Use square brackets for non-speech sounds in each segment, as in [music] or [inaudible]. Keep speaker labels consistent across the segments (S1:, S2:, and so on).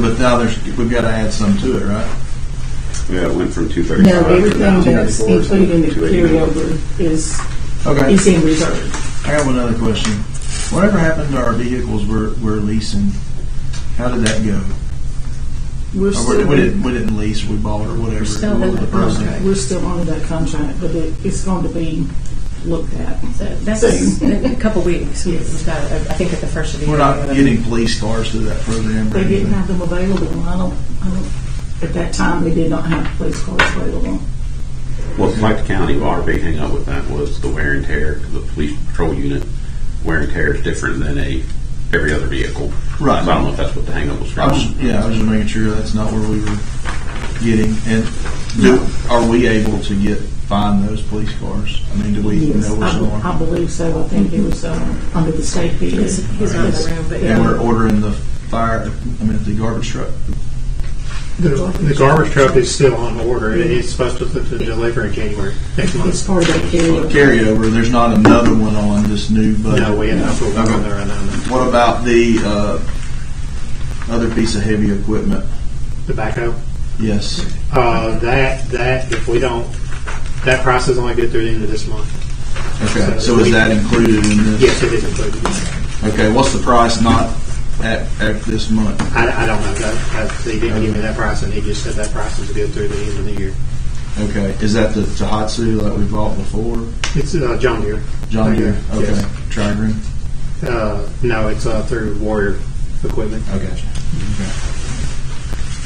S1: but now there's, we've got to add some to it, right?
S2: Yeah, it went from two
S3: No,
S2: thirty-five.
S3: everything that's included in the carryover is,
S1: Okay,
S3: is in reserve.
S1: I got one other question. Whatever happened to our vehicles we're, we're leasing? How did that go?
S3: We're
S1: Or we-
S3: still,
S1: Oh, we didn't, we didn't lease, we bought or whatever.
S3: we're still
S1: What
S3: in
S1: was the
S3: that
S1: process?
S3: contract, we're still under that contract, but it, it's going to be looked at.
S4: So that's
S3: Soon.
S4: in a couple weeks.
S3: Yes.
S4: We've got, I think at the first of the year.
S1: We're not
S4: we have a-
S1: getting police cars through that program. or
S3: They didn't
S1: anything.
S3: have them available, and I don't, I don't, at that time, they did not have police cars available.
S2: Well, like the county, our big hang up with that was the wear and tear, 'cause the police patrol unit wear and tear is different than a, every other vehicle.
S1: Right.
S2: So I don't know if that's what the hang up was
S1: I
S2: from.
S1: was, yeah, I was just making sure that's not where we were getting. And do, are we able to get, find those police cars? I mean, do we
S3: Yes, Um,
S1: know where
S3: I,
S1: some
S3: be- I
S1: are?
S3: believe so. I think it was uh, under the state fee.
S4: He's, he's not in the room, but
S1: And we're
S4: yeah.
S1: ordering the fire, I mean, the garbage truck.
S5: The the garbage truck is still on order. It's supposed to, to deliver in January next
S3: It's
S5: month.
S3: part of that carryover.
S1: Carryover, there's not another one on this new budget.
S5: No, we have not put one on there right now.
S1: What about the, uh, other piece of heavy equipment?
S5: Tobacco.
S1: Yes.
S5: Uh, that, that, if we don't, that price is only good through the end of this month.
S1: Okay, so is that included in this?
S5: Yes, it is included.
S1: Okay, what's the price not at, at this month?
S5: I, I don't know. That, that, they didn't give me that price and he just said that price is good through the end of the year.
S1: Okay, is that the Tohatsu that we bought before?
S5: It's, uh, John Deere.
S1: John Deere? Okay,
S5: Yes.
S1: Tri-Green?
S5: Uh, no, it's, uh, through Warrior Equipment.
S1: Okay.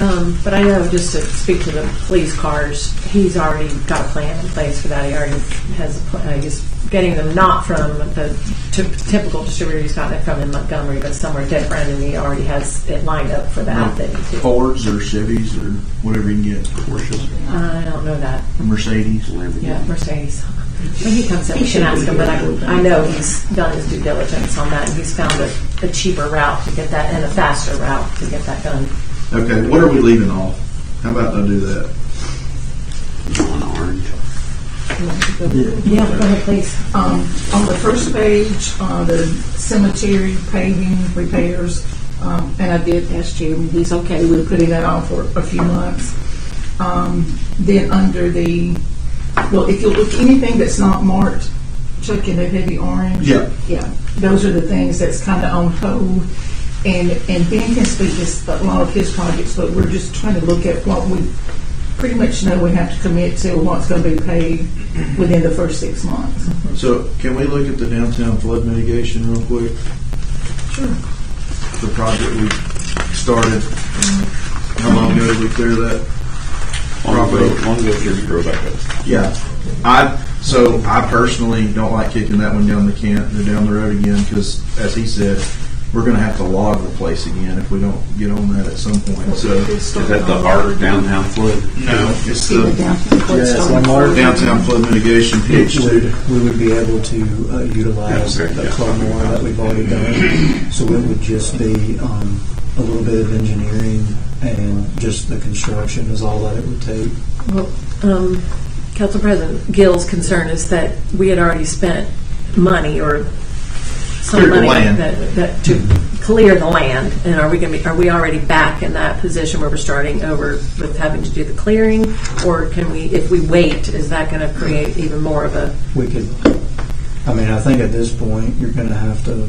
S4: Um, but I know, just to speak to the police cars, he's already got a plan in place for that. He already has, a plan. he's getting them not from the ty- typical distributor he's gotten it from in Montgomery, but somewhere different, and he already has it lined up for that. that he did.
S1: Fords or Chevys or whatever you can get. Porsches.
S4: I don't know that.
S1: Mercedes.
S4: Yeah, Mercedes. When he comes up, we can ask him, but I, I know he's done his due diligence on that, and he's found a, a cheaper route to get that, and a faster route to get that done.
S1: Okay, what are we leaving off? How about I do that?
S2: John Orange.
S4: Yeah, go ahead, please.
S3: Um, on the first page, uh, the cemetery paving repairs, um, and I did ask Jeremy, he's okay with putting that on for a few months. Um, then under the, well, if you look, anything that's not marked, Chuck, in the heavy orange.
S1: Yeah.
S3: Yeah, those are the things that's kind of on hold. And, and Ben can speak to a lot of his projects, but we're just trying to look at what we pretty much know we have to commit to, what's going to be paid within the first six months.
S1: So can we look at the downtown flood mitigation real quick?
S3: Sure.
S1: The project we started. How long ago did we clear that?
S2: Long ago,
S1: Property.
S2: long ago, Jimmy drove back up.
S1: Yeah, I, so I personally don't like kicking that one down the can, or down the road again, because as he said, we're gonna have to log the place again if we don't get on that at some point, so.
S2: Is that the art downtown flood?
S1: No, it's
S3: See the
S1: the
S3: downtown
S6: Yeah, it's
S3: Bloodstone.
S6: one more.
S1: downtown flood mitigation page
S6: Which
S1: two.
S6: would, we would be able to uh, utilize
S2: Yeah, okay,
S6: the
S2: yeah.
S6: Claremore that we've already done. So it would just be um, a little bit of engineering and just the construction is all that it would take.
S4: Well, um, Council President Gill's concern is that we had already spent money or some
S1: Cleared the
S4: money
S1: land.
S4: that, that to clear the land, and are we going to be, are we already back in that position where we're starting over with having to do the clearing? Or can we, if we wait, is that going to create even more of a,
S6: We could, I mean, I think at this point, you're going to have to,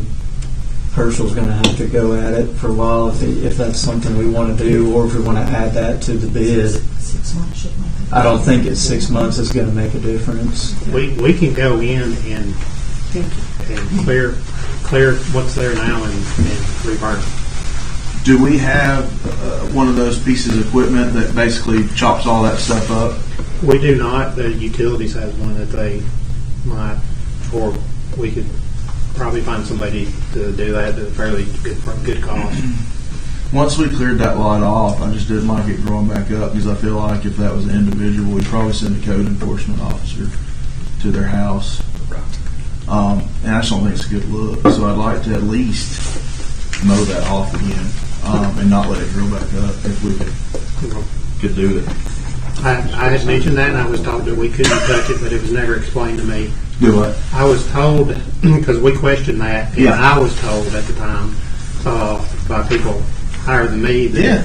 S6: Herschel's going to have to go at it for a while if, he- if that's something we want to do or if we want to add that to the bid.
S3: Six months, shit like that.
S6: I don't think it's six months is going to make a difference.
S5: We, we can go in and, and clear, clear what's there now and, and revert.
S1: Do we have, uh, one of those pieces of equipment that basically chops all that stuff up?
S5: We do not, the utilities has one that they might, or we could probably find somebody to do that at a fairly good, good cost.
S1: Once we cleared that lot off, I just didn't like it growing back up, because I feel like if that was an individual, we'd probably send a code enforcement officer to their house. Um, and I just don't think it's a good look, so I'd like to at least mow that off again, um, and not let it grow back up if we could, could do it.
S5: I, I had mentioned that and I was told that we couldn't touch it, but it was never explained to me.
S1: Do what?
S5: I was told, [clears throat] because we questioned that, and
S1: Yeah.
S5: I was told at the time, uh, by people higher than me that
S1: Yeah.